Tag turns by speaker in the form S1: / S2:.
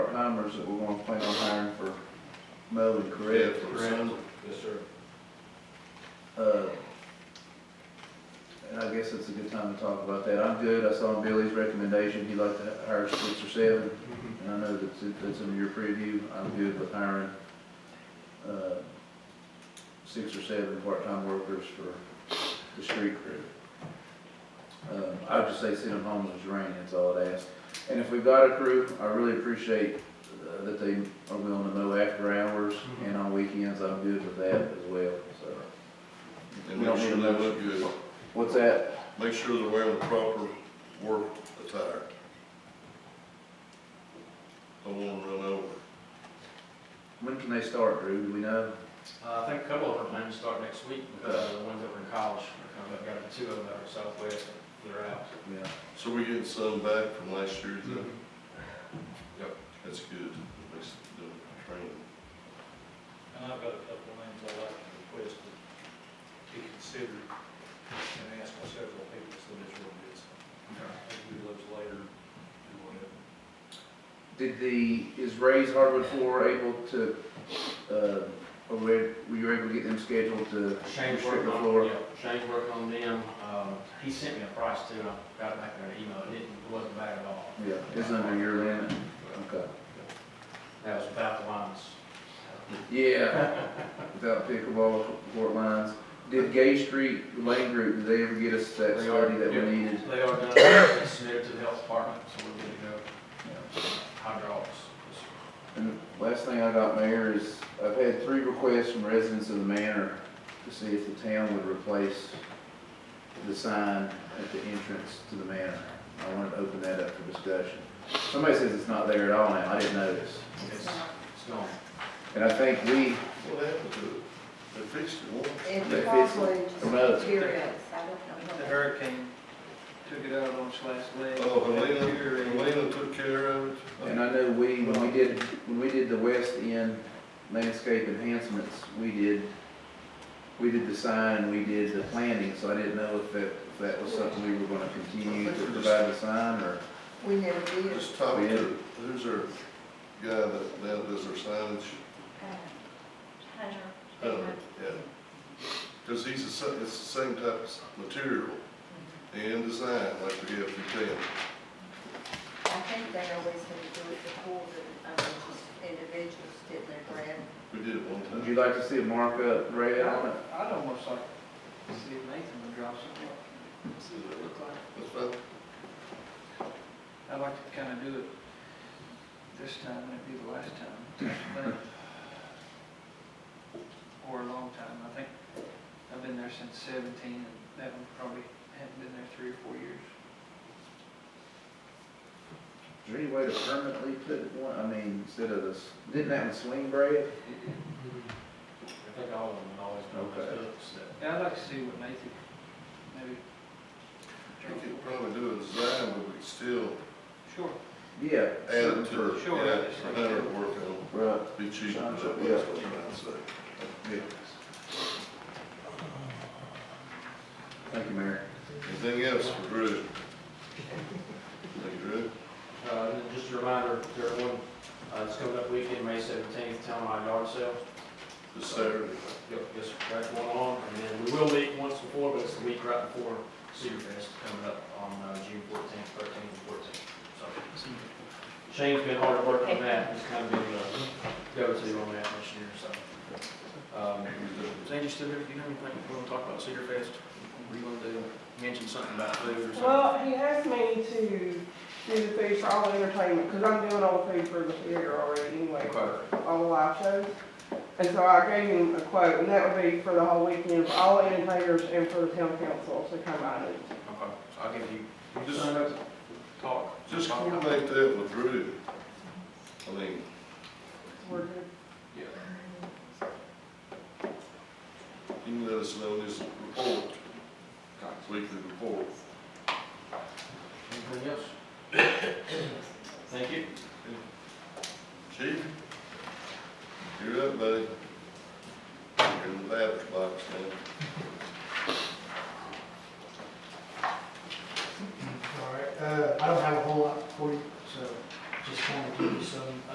S1: numbers that we want to plan on hiring for mowing, correct?
S2: Yes, sir.
S1: Uh, And I guess it's a good time to talk about that. I'm good. I saw Billy's recommendation. He'd like to hire six or seven. And I know that's, that's in your preview. I'm good with hiring, uh, six or seven part-time workers for the street crew. Um, I would just say send them home when it's raining, that's all I'd ask. And if we've got a crew, I really appreciate uh, that they are willing to mow after hours and on weekends. I'm good with that as well, so.
S3: And make sure they look good,
S1: What's that?
S3: make sure they're wearing the proper work attire. Don't want them run over.
S1: When can they start, Drew? Do we know?
S2: Uh, I think a couple of them plan to start next week, because the ones that were in college, I've got two of them that are southwest, they're out.
S1: Yeah.
S3: So we getting some back from last year,
S2: Mm-hmm.
S3: then?
S2: Yep.
S3: That's good, makes the training.
S4: And I've got a couple names I'd like to request to be considered and ask my several people, so this will be, so I'll do those later and whatever.
S1: Did the, is Ray's hardwood floor able to, uh, or were, were you able to get them scheduled to?
S2: Shane's
S1: restrict
S2: working
S1: the
S2: on,
S1: floor?
S2: yeah, Shane's working on them, um, he sent me a price too, and I got it back there in an email, it didn't, it wasn't bad at all.
S1: Yeah, it's under your limit, okay.
S2: That was about the lines.
S1: Yeah, without pickleball court lines. Did Gay Street Lane Group, did they ever get us that
S2: They are-
S1: study that we
S2: yeah,
S1: needed?
S2: They are done, They submitted to the health department, so we're good to go, hydraulics.
S1: And last thing I got, Mayor, is I've had three requests from residents of the manor to see if the town would replace the sign at the entrance to the manor. I wanted to open that up for discussion. Somebody says it's not there at all now, I didn't notice.
S2: It's, it's gone.
S1: And I think we,
S3: What happened to it? They fixed it once.
S5: It
S1: They
S5: probably
S1: fix
S5: just
S1: it. Well, it's-
S5: deteriorates, I don't
S6: The
S5: know.
S6: hurricane took it out on its last leg.
S3: Oh, Helena,
S6: Deteriorated.
S3: Helena took care of it.
S1: and I know we, when we did, when we did the west end landscape enhancements, we did, we did the sign, we did the planting, so I didn't know if that, if that was something we were gonna continue to provide the sign, or
S5: We never did.
S3: Just talk to, who's our guy that, that does our signage? Uh, Yeah, because he's the sa- it's the same type of s- material and design like we have to tell.
S5: I think they always had to do it before, the um, just individuals did their grant.
S3: We did it one
S1: Would
S3: time.
S1: you like to see a markup red on it?
S6: I'd almost like to see if Nathan would draw something. See what it looked like.
S3: That's fine.
S6: I'd like to kind of do it this time, and it'd be the last time. but- Or a long time. I think I've been there since seventeen, and that one probably hadn't been there three or four years.
S1: Is there any way to permanently put one, I mean, instead of this, didn't that one swing braid?
S2: Mm-hmm. I think all of them always know those hooks that
S6: Yeah, I'd like to see what Nathan, maybe.
S3: We could probably do a design, but we could still
S6: Sure.
S1: Yeah.
S3: add it to,
S1: something
S6: Sure.
S3: yeah, for better work on,
S1: for- Right,
S3: be cheaper, that's what
S1: Yeah.
S3: I'm trying to say.
S1: yeah. Thank you, Mayor.
S3: Anything else for Drew? Thank you, Drew.
S2: Uh, and then just a reminder, to everyone, uh, it's coming up weekend, May seventeenth, townwide yard sale.
S3: This Saturday.
S2: Yep, yes, that's going on, and then we will meet once before, but it's the week right before Superfest coming up on, uh, June fourteenth, thirteenth, and fourteenth, so. Shane's been hard at work on that, he's kind of been, uh, go-to on that this year, so. Um, Sandy, still here, do you have anything you want to talk about Superfest? Were you going to mention something about food or something?
S7: Well, he asked me to do the food for all entertainment, because I'm doing all the food for the theater already anyway,
S2: Okay.
S7: all the live shows. And so I gave him a quote, and that would be for the whole weekend, for all entertainers and for the town council to come out
S2: Okay,
S7: and
S2: so I'll give you, you
S3: Just-
S2: sign up, talk.
S3: Just coordinate that with Drew. I mean,
S7: work
S2: Yeah.
S3: you can let us know this report, weekly report.
S2: Anything else? Thank you.
S3: Chief, you're up, buddy. You're in the bathroom,